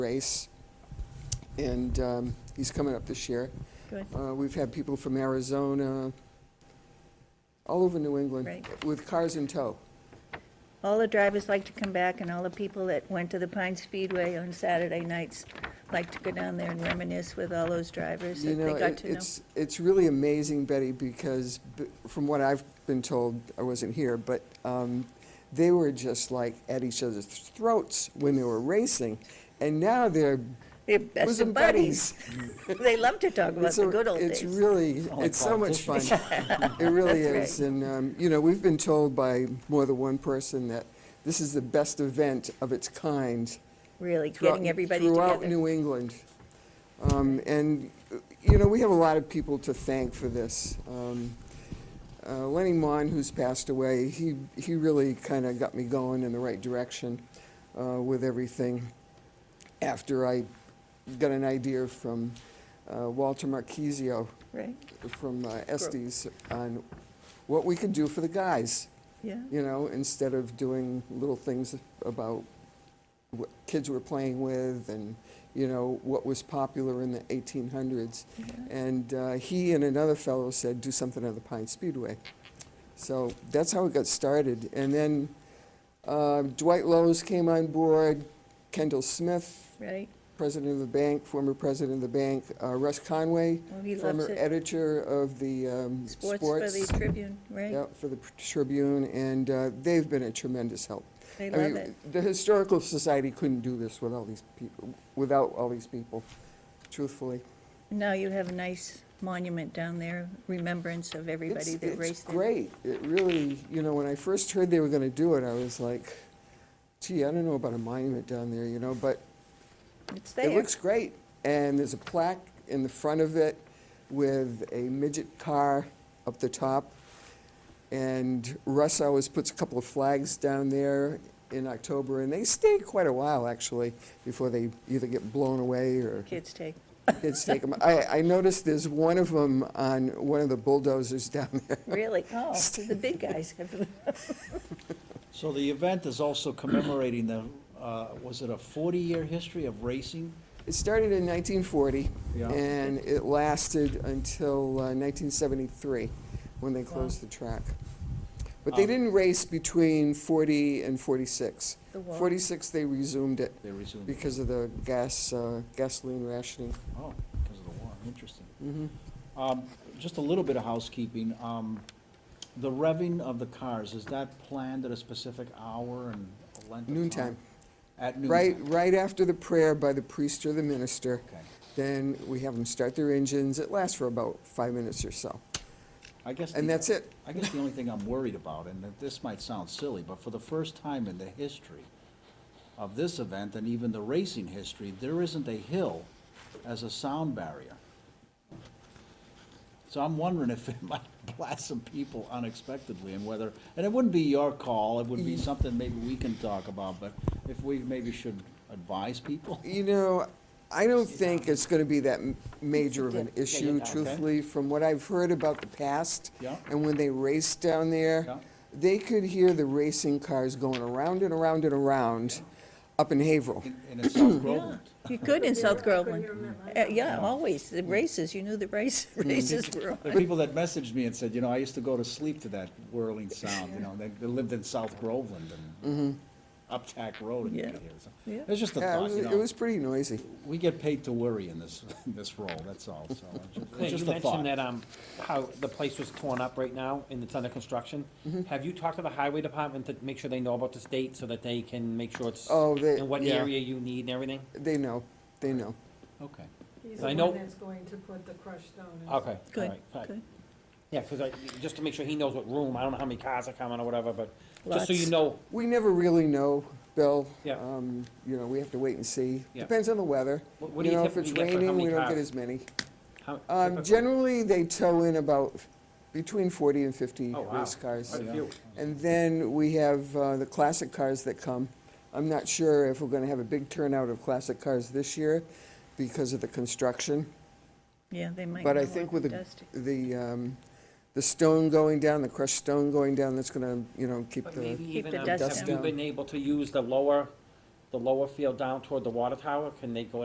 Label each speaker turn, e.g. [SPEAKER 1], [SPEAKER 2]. [SPEAKER 1] race, and um, he's coming up this year.
[SPEAKER 2] Good.
[SPEAKER 1] Uh, We've had people from Arizona, all over New England,
[SPEAKER 2] Right.
[SPEAKER 1] with cars in tow.
[SPEAKER 2] All the drivers like to come back, and all the people that went to the Pine Speedway on Saturday nights like to go down there and reminisce with all those drivers
[SPEAKER 1] You
[SPEAKER 2] that they
[SPEAKER 1] know,
[SPEAKER 2] got
[SPEAKER 1] it-
[SPEAKER 2] to know.
[SPEAKER 1] it's, it's really amazing, Betty, because b- from what I've been told, I wasn't here, but um, they were just like at each other's throats when they were racing, and now they're
[SPEAKER 2] They're best
[SPEAKER 1] bosom
[SPEAKER 2] of
[SPEAKER 1] buddies.
[SPEAKER 2] buddies. They love to talk about
[SPEAKER 1] It's
[SPEAKER 2] the
[SPEAKER 1] a-
[SPEAKER 2] good old
[SPEAKER 1] It's
[SPEAKER 2] days.
[SPEAKER 1] really,
[SPEAKER 3] like
[SPEAKER 1] it's so much fun.
[SPEAKER 3] politicians.
[SPEAKER 1] It really
[SPEAKER 2] That's
[SPEAKER 1] is. And, um, you know, we've been told by more than one person that this is the best event of its kind.
[SPEAKER 2] Really,
[SPEAKER 1] throughout-
[SPEAKER 2] getting everybody
[SPEAKER 1] Throughout
[SPEAKER 2] together.
[SPEAKER 1] New England. Um, And, uh, you know, we have a lot of people to thank for this. Um, uh, Lenny Mon, who's passed away, he, he really kind of got me going in the right direction uh, with everything after I got an idea from uh, Walter Marquisio
[SPEAKER 2] Right,
[SPEAKER 1] from uh, Estes on what we could do for the guys,
[SPEAKER 2] yeah,
[SPEAKER 1] you know, instead of doing little things about what kids were playing with and, you know, what was popular in the 1800s.
[SPEAKER 2] yeah.
[SPEAKER 1] And uh, he and another fellow said, do something on the Pine Speedway. So that's how it got started. And then uh, Dwight Lowe's came on board, Kendall Smith,
[SPEAKER 2] right.
[SPEAKER 1] president of the bank, former president of the bank, uh, Russ Conway,
[SPEAKER 2] Well, he loves
[SPEAKER 1] former
[SPEAKER 2] it.
[SPEAKER 1] editor of the um,
[SPEAKER 2] Sports for the
[SPEAKER 1] sports,
[SPEAKER 2] Tribune, right?
[SPEAKER 1] yeah, for the Tribune, and uh, they've been a tremendous help.
[SPEAKER 2] They
[SPEAKER 1] I mean,
[SPEAKER 2] love it.
[SPEAKER 1] The Historical Society couldn't do this with all these people, without all these people, truthfully.
[SPEAKER 2] Now you have a nice monument down there, remembrance of everybody
[SPEAKER 1] It's-
[SPEAKER 2] that raced
[SPEAKER 1] It's
[SPEAKER 2] there.
[SPEAKER 1] great. It really, you know, when I first heard they were going to do it, I was like, gee, I don't know about a monument down there, you know, but
[SPEAKER 2] It's
[SPEAKER 1] It
[SPEAKER 2] there,
[SPEAKER 1] looks great, and there's a plaque in the front of it with a midget car up the top. And Russ always puts a couple of flags down there in October, and they stay quite a while, actually, before they either get blown away or
[SPEAKER 2] kids take.
[SPEAKER 1] kids take them. I, I noticed there's one of them on one of the bulldozers down there.
[SPEAKER 2] Really? Oh, the big guys have.
[SPEAKER 3] So the event is also commemorating the, uh, was it a 40-year history of racing?
[SPEAKER 1] It started in 1940,
[SPEAKER 3] Yeah.
[SPEAKER 1] and it lasted until uh, 1973, when they
[SPEAKER 2] Wow.
[SPEAKER 1] closed the track. But they
[SPEAKER 3] Um,
[SPEAKER 1] didn't race between 40 and 46.
[SPEAKER 2] The what?
[SPEAKER 1] 46, they resumed it
[SPEAKER 3] They resumed. it.
[SPEAKER 1] because of the gas, uh, gasoline rationing.
[SPEAKER 3] Oh, because of the war, interesting. Um, Just a little bit of housekeeping. Um, The revving of the cars, is that planned at a specific hour and a length of
[SPEAKER 1] Noon time.
[SPEAKER 3] time? At noon?
[SPEAKER 1] Right,
[SPEAKER 3] time.
[SPEAKER 1] right after the prayer by the priest or the minister,
[SPEAKER 3] Okay.
[SPEAKER 1] then we have them start their engines. It lasts for about five minutes or so.
[SPEAKER 3] I guess.
[SPEAKER 1] And
[SPEAKER 3] the-
[SPEAKER 1] that's it.
[SPEAKER 3] I guess the only thing I'm worried about, and that this might sound silly, but for the first time in the history of this event and even the racing history, there isn't a hill as a sound barrier. So I'm wondering if it might blast some people unexpectedly and whether, and it wouldn't be your call, it would be
[SPEAKER 1] Mm-hmm.
[SPEAKER 3] something maybe we can talk about, but if we maybe should advise people.
[SPEAKER 1] You know, I don't think it's going to be that m- major of an
[SPEAKER 2] Yeah, yeah,
[SPEAKER 1] issue,
[SPEAKER 3] yeah. Okay.
[SPEAKER 1] truthfully, from what I've heard about the past.
[SPEAKER 3] Yeah.
[SPEAKER 1] And when they raced down there,
[SPEAKER 3] Yeah.
[SPEAKER 1] they could hear the racing cars going around and around and around up in Haverhill.
[SPEAKER 3] And and it's South Groveland.
[SPEAKER 2] You could in South Groveland. Uh, Yeah, always, the races, you knew the race, races were
[SPEAKER 3] The
[SPEAKER 2] on.
[SPEAKER 3] people that messaged me and said, you know, I used to go to sleep to that whirling sound, you know, they, they lived in South Groveland and Uptack Road and you
[SPEAKER 2] Mm-hmm. Yeah.
[SPEAKER 3] could hear
[SPEAKER 2] Yeah.
[SPEAKER 3] it. It's just a
[SPEAKER 1] Yeah, it
[SPEAKER 3] thought,
[SPEAKER 1] was,
[SPEAKER 3] you
[SPEAKER 1] it
[SPEAKER 3] know,
[SPEAKER 1] was pretty noisy.
[SPEAKER 3] we get paid to worry in this, in this role, that's all, so, it's ju-
[SPEAKER 4] Yeah,
[SPEAKER 3] it's
[SPEAKER 4] you
[SPEAKER 3] just a
[SPEAKER 4] mentioned that,
[SPEAKER 3] thought.
[SPEAKER 4] um, how the place was torn up right now and it's under construction.
[SPEAKER 1] Mm-hmm.
[SPEAKER 4] Have you talked to the highway department to make sure they know about the state so that they can make sure it's,
[SPEAKER 1] Oh, they-
[SPEAKER 4] and what
[SPEAKER 1] yeah.
[SPEAKER 4] area you need and everything?
[SPEAKER 1] They know, they know.
[SPEAKER 3] Okay,
[SPEAKER 5] He's
[SPEAKER 4] I
[SPEAKER 5] the
[SPEAKER 4] know-
[SPEAKER 5] one that's going to put the crushed stone in.
[SPEAKER 4] Okay, all
[SPEAKER 2] Good,
[SPEAKER 4] right, all right.
[SPEAKER 2] good.
[SPEAKER 4] Yeah, cause I, just to make sure he knows what room, I don't know how many cars are coming or whatever, but just so you
[SPEAKER 2] Lots.
[SPEAKER 4] know,
[SPEAKER 1] We never really know, Bill.
[SPEAKER 4] Yeah.
[SPEAKER 1] Um, You know, we have to wait and see.
[SPEAKER 4] Yeah.
[SPEAKER 1] Depends on the weather.
[SPEAKER 4] What- what do you
[SPEAKER 1] know, if it's
[SPEAKER 4] typically get for how
[SPEAKER 1] raining, we
[SPEAKER 4] many
[SPEAKER 1] don't get
[SPEAKER 4] cars?
[SPEAKER 1] as many.
[SPEAKER 4] how.
[SPEAKER 1] Um,
[SPEAKER 4] typically-
[SPEAKER 1] Generally, they tow in about f- between 40 and 50
[SPEAKER 4] Oh, wow.
[SPEAKER 1] race cars.
[SPEAKER 4] Quite a few.
[SPEAKER 1] And then we have uh, the classic cars that come. I'm not sure if we're going to have a big turnout of classic cars this year because of the construction.
[SPEAKER 2] Yeah, they might.
[SPEAKER 1] But I
[SPEAKER 2] know
[SPEAKER 1] think
[SPEAKER 2] all
[SPEAKER 1] with
[SPEAKER 2] the
[SPEAKER 1] the,
[SPEAKER 2] dust.
[SPEAKER 1] the, um, the stone going down, the crushed stone going down, that's going to, you know, keep
[SPEAKER 4] But
[SPEAKER 1] the,
[SPEAKER 4] maybe even,
[SPEAKER 2] the
[SPEAKER 4] um,
[SPEAKER 2] dust
[SPEAKER 4] have you
[SPEAKER 1] down.
[SPEAKER 4] been able to use the lower the lower field down toward the water tower? Can they go